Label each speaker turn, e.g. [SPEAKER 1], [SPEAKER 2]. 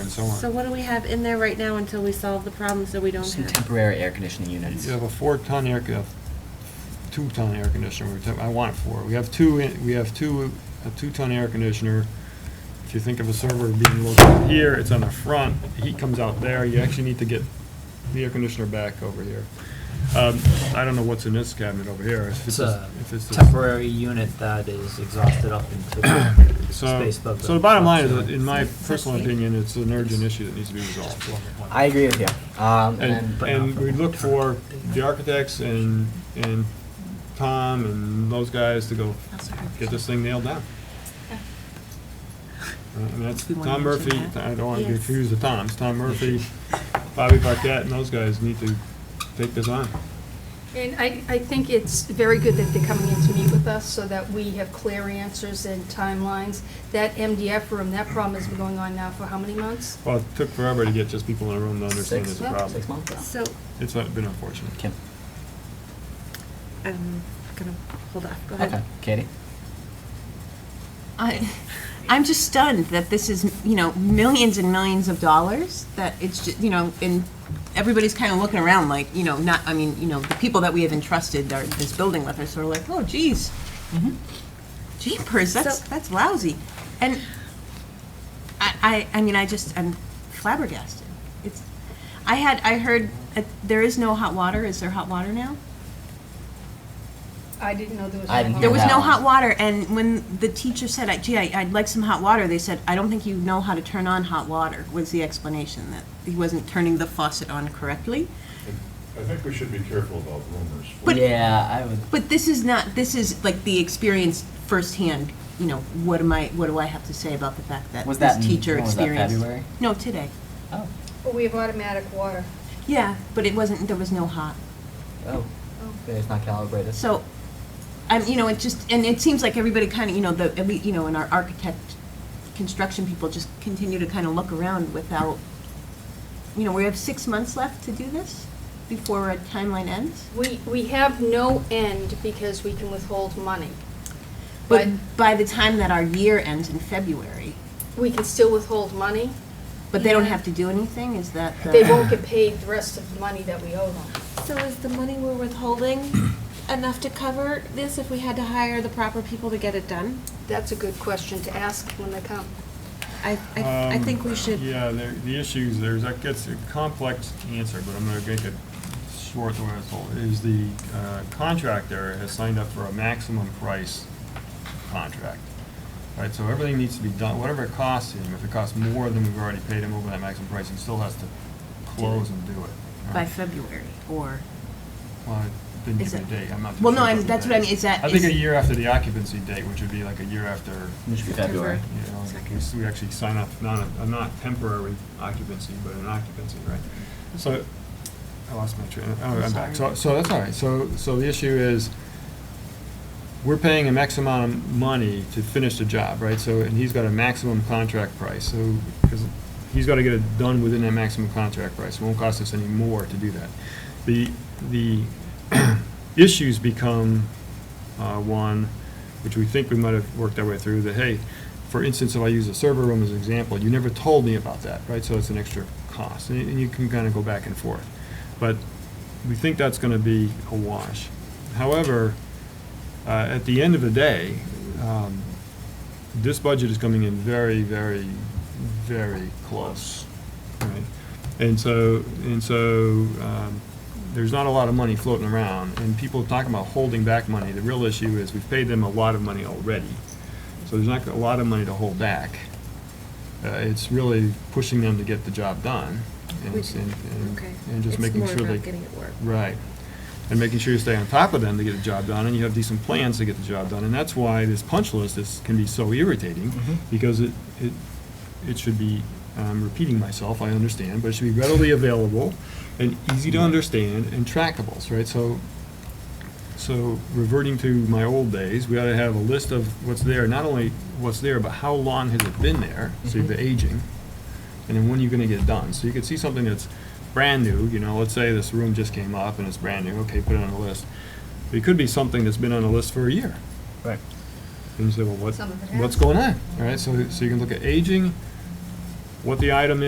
[SPEAKER 1] and so
[SPEAKER 2] So
[SPEAKER 1] on.
[SPEAKER 2] what do we have in there right now until we solve the problems that we don't
[SPEAKER 3] Some
[SPEAKER 2] have?
[SPEAKER 3] temporary air conditioning units.
[SPEAKER 1] You have a four-ton air, you have two-ton air conditioner, we were talking- I want four. We have two, in- we have two, a two-ton air conditioner. If you think of a server being located here, it's on the front, heat comes out there, you actually need to get the air conditioner back over here. Um, I don't know what's in this cabinet over here. if
[SPEAKER 4] It's
[SPEAKER 1] just-
[SPEAKER 4] a
[SPEAKER 1] if it's just-
[SPEAKER 4] temporary unit that is exhausted up into the
[SPEAKER 1] So,
[SPEAKER 4] space above
[SPEAKER 1] so the bottom line is, in my
[SPEAKER 2] Six
[SPEAKER 1] personal
[SPEAKER 2] feet.
[SPEAKER 1] opinion, it's an urgent issue that needs to be resolved.
[SPEAKER 3] I agree with you. Um, and
[SPEAKER 1] And,
[SPEAKER 3] then,
[SPEAKER 4] but
[SPEAKER 1] and
[SPEAKER 4] not
[SPEAKER 1] we
[SPEAKER 4] for
[SPEAKER 1] look for
[SPEAKER 4] long-term.
[SPEAKER 1] the architects and, and Tom and those guys to go get this thing nailed down. Uh, And that's
[SPEAKER 5] We wanna
[SPEAKER 1] Tom Murphy,
[SPEAKER 5] mention that.
[SPEAKER 1] I don't want to
[SPEAKER 2] Yes.
[SPEAKER 1] confuse the Toms, Tom Murphy, Bobby Paquette, and those guys need to take this on.
[SPEAKER 6] And I, I think it's very good that they're coming in to meet with us so that we have clear answers and timelines. That MDF room, that problem has been going on now for how many months?
[SPEAKER 1] Well, it took forever to get just people in a room to understand
[SPEAKER 3] uh, six,
[SPEAKER 1] it's a problem.
[SPEAKER 3] six months?
[SPEAKER 2] So
[SPEAKER 1] It's been unfortunate.
[SPEAKER 3] Kim,
[SPEAKER 2] I'm gonna hold off, go
[SPEAKER 3] okay,
[SPEAKER 2] ahead.
[SPEAKER 3] Katie?
[SPEAKER 5] I, I'm just stunned that this is, you know, millions and millions of dollars, that it's just, you know, and everybody's kind of looking around like, you know, not, I mean, you know, the people that we have entrusted our, this building with are sort of like, oh geez. Jeepers, that's,
[SPEAKER 2] So-
[SPEAKER 5] that's lousy. And I, I, I mean, I just, I'm flabbergasted. It's, I had, I heard, uh, there is no hot water, is there hot water now?
[SPEAKER 6] I didn't know there was.
[SPEAKER 3] I didn't
[SPEAKER 6] one.
[SPEAKER 3] hear
[SPEAKER 5] There was
[SPEAKER 3] that
[SPEAKER 5] no
[SPEAKER 3] one.
[SPEAKER 5] hot water, and when the teacher said, "I- gee, I- I'd like some hot water, they said, I don't think you know how to turn on hot water, was the explanation, that he wasn't turning the faucet on correctly.
[SPEAKER 7] I think we should be careful about rumors.
[SPEAKER 5] But-
[SPEAKER 3] Yeah, I would,
[SPEAKER 5] But this is not, this is like the experience firsthand, you know, what am I, what do I have to say about the fact that
[SPEAKER 3] Was
[SPEAKER 5] this
[SPEAKER 3] that in-
[SPEAKER 5] teacher
[SPEAKER 3] when was that,
[SPEAKER 5] experienced?
[SPEAKER 3] February?
[SPEAKER 5] No, today.
[SPEAKER 3] oh,
[SPEAKER 6] But we have automatic water.
[SPEAKER 5] Yeah, but it wasn't, there was no hot.
[SPEAKER 3] oh, it's not calibrated.
[SPEAKER 5] So, um, you know, it just, and it seems like everybody kind of, you know, the, at lea- you know, and our architect, construction people just continue to kind of look around without, you know, we have six months left to do this before our timeline ends.
[SPEAKER 6] We, we have no end because we can withhold money.
[SPEAKER 5] But
[SPEAKER 6] But
[SPEAKER 5] by the time that our year ends in February,
[SPEAKER 6] we can still withhold money.
[SPEAKER 5] but they don't have to do anything, is that the?
[SPEAKER 6] They won't get paid the rest of the money that we owe them.
[SPEAKER 2] So is the money we're withholding enough to cover this if we had to hire the proper people to get it done?
[SPEAKER 6] That's a good question to ask when they come.
[SPEAKER 2] I, I, I
[SPEAKER 1] Um,
[SPEAKER 2] think we should,
[SPEAKER 1] Yeah, there, the issues, there's, that gets a complex answer, but I'm gonna make it short the way it's told, is the uh, contractor has signed up for a maximum price contract. Right, so everything needs to be done, whatever it costs him, if it costs more than we've already paid him over that maximum price, he still has to close and do it.
[SPEAKER 5] By
[SPEAKER 1] right?
[SPEAKER 5] February, or,
[SPEAKER 1] Well, I didn't
[SPEAKER 5] Is
[SPEAKER 1] give me a
[SPEAKER 5] it-
[SPEAKER 1] date, I'm not. too
[SPEAKER 5] well,
[SPEAKER 1] sure
[SPEAKER 5] no, I'm,
[SPEAKER 1] about the
[SPEAKER 5] that's what I
[SPEAKER 1] date.
[SPEAKER 5] mean, is that?
[SPEAKER 1] I think
[SPEAKER 5] is-
[SPEAKER 1] a year after the occupancy date, which would be like a year after
[SPEAKER 3] It should be February.
[SPEAKER 1] you know, in case we actually sign up, not, a- a not temporary occupancy, but an occupancy, right? So, I lost my train, of- oh, I'm back. So,
[SPEAKER 5] Sorry.
[SPEAKER 1] so that's all right. So, so the issue is, we're paying a max amount of money to finish the job, right? So, and he's got a maximum contract price, so, because he's got to get it done within that maximum contract price. It won't cost us any more to do that. The, the issues become, uh, one, which we think we might have worked our way through, that, hey, for instance, if I use a server room as an example, you never told me about that, right? So it's an extra cost, and and you can kind of go back and forth. But we think that's going to be a wash. However, uh, at the end of the day, um, this budget is coming in very, very, very close. right? And so, and so, um, there's not a lot of money floating around, and people talking about holding back money. The real issue is we've paid them a lot of money already, so there's not a lot of money to hold back. Uh, It's really pushing them to get the job done, and, it's- and- and-
[SPEAKER 2] okay.
[SPEAKER 1] and just making
[SPEAKER 2] It's
[SPEAKER 1] sure
[SPEAKER 2] more
[SPEAKER 1] they.
[SPEAKER 2] about getting it work.
[SPEAKER 1] Right. And making sure you stay on top of them to get the job done, and you have decent plans to get the job done. And that's why this punch list is, can be so irritating,
[SPEAKER 3] Mhm.
[SPEAKER 1] because it, it, it should be, I'm repeating myself, I understand, but it should be readily available and easy to understand and trackables, right? So, so reverting to my old days, we ought to have a list of what's there, not only what's there, but how long has it been there, so you have the aging, and then when are you gonna get it done? So you could see something that's brand new, you know, let's say this room just came up and it's brand new, okay, put it on the list. But It could be something that's been on the list for a year.
[SPEAKER 3] Right.
[SPEAKER 1] And you say, well, what,
[SPEAKER 6] Some of it
[SPEAKER 1] what's
[SPEAKER 6] has.
[SPEAKER 1] going on, all right? So, so you can look at aging, what the item is.